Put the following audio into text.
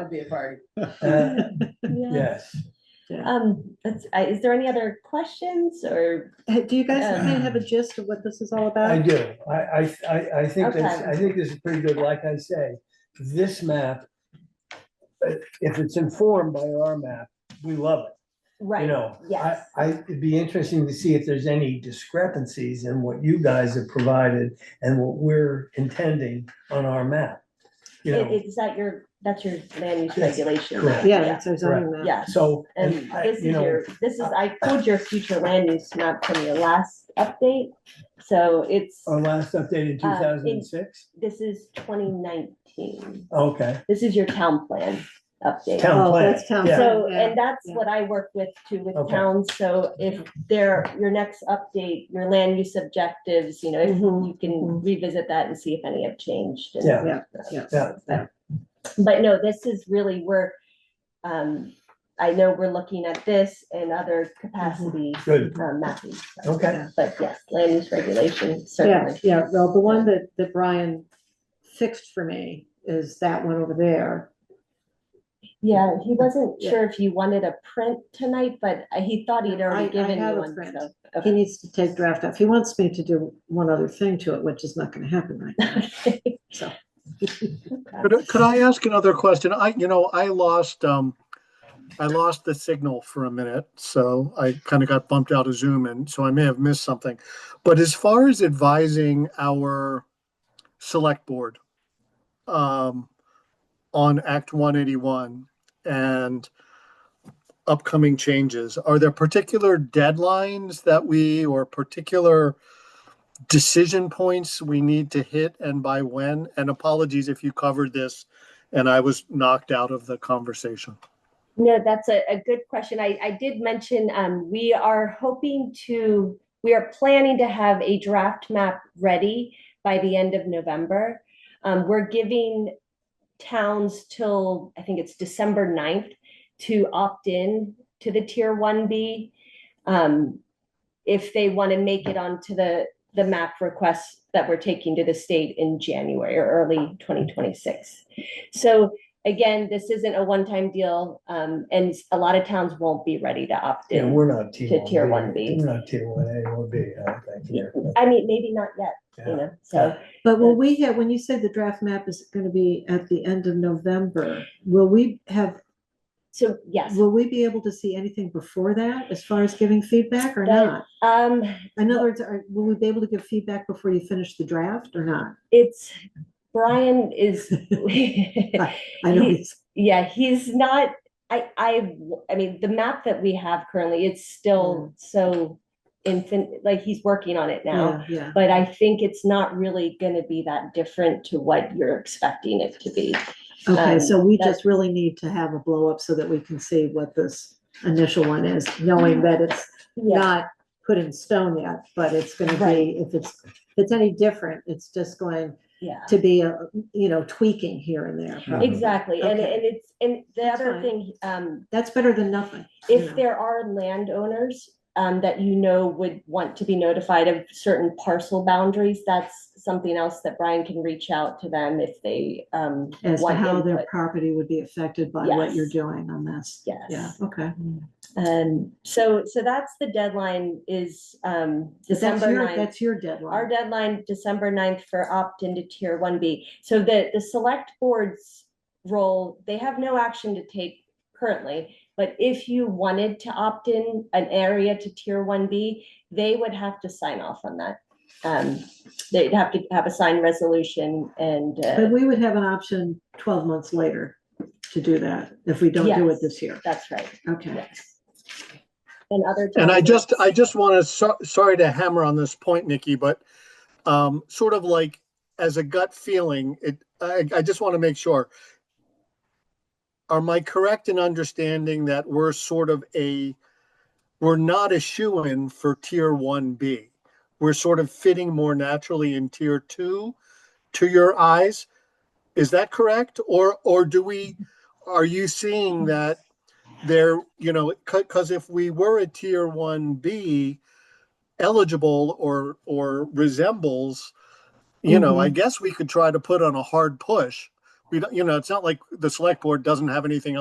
would be a party. Uh, Yeah. Yes. Um, that's, I- is there any other questions or, Uh, Do you guys Um, kind of have a gist of what this is all about? I do. I, I, I, I think that's, Okay. I think this is pretty good. Like I say, this map, uh, if it's informed by our map, we love it, you right? know? I, Yes. I, it'd be interesting to see if there's any discrepancies in what you guys have provided and what we're intending on our map. You It- know, It's that your, that's your land use Yes, regulation. correct. map, Yeah, it's a zoning map. Yeah, so, and and I, this is you know, your, this is, I pulled your future land use map from your last update. So it's, our last update in two Uh, in- thousand and six? this is twenty nineteen. Okay, This is your town plan update. Town Oh, plan, that's town yeah. plan. So, Yeah, and that's yeah. what I work with too with Okay. towns, so if there, your next update, your land use objectives, you know, if Mhm. you can revisit that and see if any have changed. and- Yeah. Yeah, yeah. yeah, But no, this is really, we're, um, I know we're looking at this and other capacity good, Mm-hmm. um, mapping. so- okay, But yes, land use regulation, Yeah, certainly. yeah, well, the one that, that Brian fixed for me is that one over there. Yeah, he wasn't Yeah. sure if you wanted a print tonight, but uh, he thought he'd I- I already given you have a one, print. so. He needs to take draft off. He wants me to do one other thing to it, which is not gonna happen right now, okay. so. Could, could I ask another question? I, you know, I lost, um, I lost the signal for a minute, so I kind of got bumped out of Zoom and so I may have missed something. But as far as advising our select board, um, on Act one eighty-one and upcoming changes, are there particular deadlines that we, or particular decision points we need to hit and by when? And apologies if you covered this and I was knocked out of the conversation. No, that's a, a good question. I, I did mention, um, we are hoping to, we are planning to have a draft map ready by the end of November. Um, we're giving towns till, I think it's December 9th to opt in to the tier one B. Um, if they want to make it onto the, the map requests that we're taking to the state in January or early twenty twenty-six. So again, this isn't a one-time deal, um, and s- a lot of towns won't be ready to opt yeah, in. we're not T To one B. tier 1B. We're not T one A or B, I don't think, here. I mean, maybe not yet, Yeah. you know, so, But will we have, when you say the draft map is gonna be at the end of November, will we have, so, yes. will we be able to see anything before that as far as giving feedback or That- not? Um, In other words, are, will we be able to give feedback before you finish the draft or not? it's, Brian is, I know He- it's, yeah, he's not, I, I, I mean, the map that we have currently, it's still so infant, like, he's working on it now. Mm. Um, yeah, yeah. But I think it's not really gonna be that different to what you're expecting it to be. Okay, Um, so we that- just really need to have a blow up so that we can see what this initial one is, knowing that it's not put in stone yet, but it's gonna Right. be, if it's, if it's any different, it's just going Yeah. to be, a you know, tweaking here and there. probably. Exactly, and, Okay. and it's, and the That's other fine. thing, um, That's better than nothing. you know. if there are landowners, um, that you know would want to be notified of certain parcel boundaries, that's something else that Brian can reach out to them if they, um. As to want how their input. property would be affected by what you're Yes. doing on this. Yeah, Yes, okay. and Um, so, so that's the deadline is, um, But That's December your- ninth. That's your Our deadline. deadline, December 9th for opt into tier one B. So the, the select board's role, they have no action to take currently. But if you wanted to opt in an area to tier one B, they would have to sign off on that. Um, they'd have to have a signed resolution and, But uh, we would have an option twelve months later to do that if we don't do it Yes. this year. that's right, Okay. yes. And other. And I towns- just, I just want to, so, sorry to hammer on this point, Nikki, but um, sort of like as a gut feeling, it, I, I just want to make sure. Am I correct in understanding that we're sort of a, we're not a shoe-in for tier one B? We're sort of fitting more naturally in tier two to your eyes? Is that correct? Or, or do we, are you seeing that there, you know, because if we were a tier one B eligible or, or resembles, you know, I guess we could try to put on a hard push, we don't, you know, it's not like the select board doesn't have anything